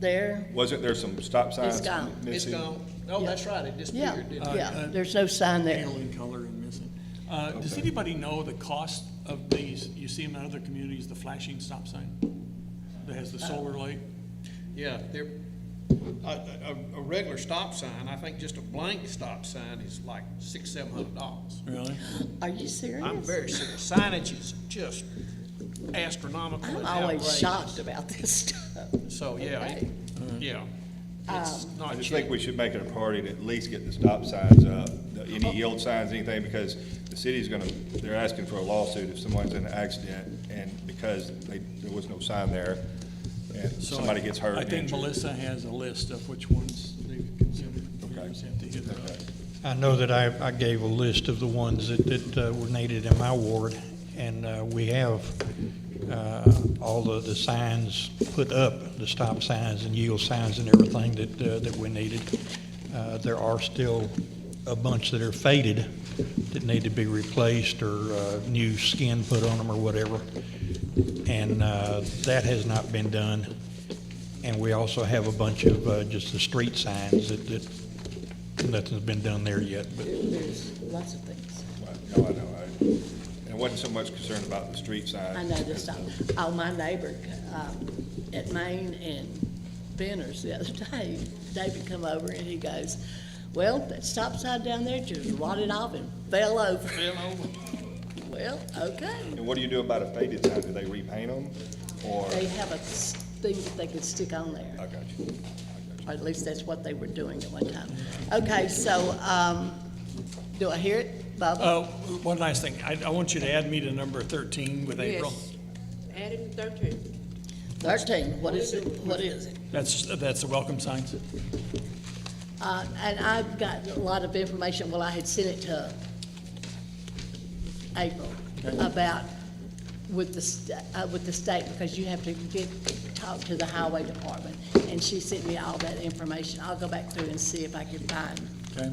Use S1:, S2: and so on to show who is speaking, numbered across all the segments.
S1: there.
S2: Wasn't there some stop signs?
S1: It's gone.
S2: missing?
S3: It's gone. Oh, that's right, it
S1: Yeah, Uh,
S3: disappeared, didn't it?
S1: yeah, there's no sign there.
S4: pale in color and missing. Uh, Does
S2: Okay.
S4: anybody know the cost of these, you see them in other communities, the flashing stop sign that has the
S1: Uh,
S4: solar light?
S3: Yeah, they're, a, a, a regular stop sign, I think just a blank stop sign is like six, seven hundred dollars.
S4: Really?
S1: Are you serious?
S3: I'm very serious. Signage is just astronomical.
S1: I'm
S3: It's
S1: always
S3: outrageous.
S1: shocked about this stuff.
S3: So, yeah, it-
S1: Okay. Uh,
S3: yeah. It's
S2: I
S3: not
S2: just
S3: cheap.
S2: think we should make it a priority to at least get the stop signs up, the-
S1: Oh.
S2: any yield signs, anything, because the city's gonna, they're asking for a lawsuit if someone's in an accident, and because they, there was no sign there, and
S4: So
S2: somebody gets hurt.
S4: I
S2: and
S4: think
S2: injured.
S4: Melissa has a list of which ones they've considered. You
S2: Okay.
S4: just have to hit her up.
S5: I know that I, I gave a list of the ones that, that uh, were needed in my ward, and uh, we have uh, all of the signs put up, the stop signs and yield signs and everything that, uh, that we needed. Uh, There are still a bunch that are faded that need to be replaced or uh, new skin put on them or whatever, and uh, that has not been done. And we also have a bunch of uh, just the street signs that, that nothing's been done there yet, but
S1: There's lots of things.
S2: Right. No, I know, I, and I wasn't so much concerned about the street signs.
S1: I know this, oh, my neighbor, um, at Maine and Benner's the other day, David come over and he goes, well, that stop sign down there just rotted off and fell over.
S3: Fell over.
S1: Well, okay.
S2: And what do you do about a faded sign? Do they repaint them, or?
S1: They have a s- thing that they can stick on there.
S2: I got you, I got
S1: Or at least that's what they were doing at one time. Okay, so, um, do I hear it, Bob?
S4: Uh, One last thing, I, I want you to add me to number 13 with April.
S6: Yes, added in thirteen.
S1: Thirteen, what is it, what is it?
S4: That's, that's the welcome signs.
S1: Uh, and I've gotten a lot of information, well, I had sent it to April about with the, st- uh, with the state, because you have to get, talk to the highway department. And she sent me all that information. I'll go back through and see if I can find
S4: Okay.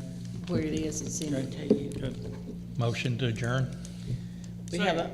S1: where it is and send it to you.
S4: Good.
S5: motion to adjourn?
S1: We have a,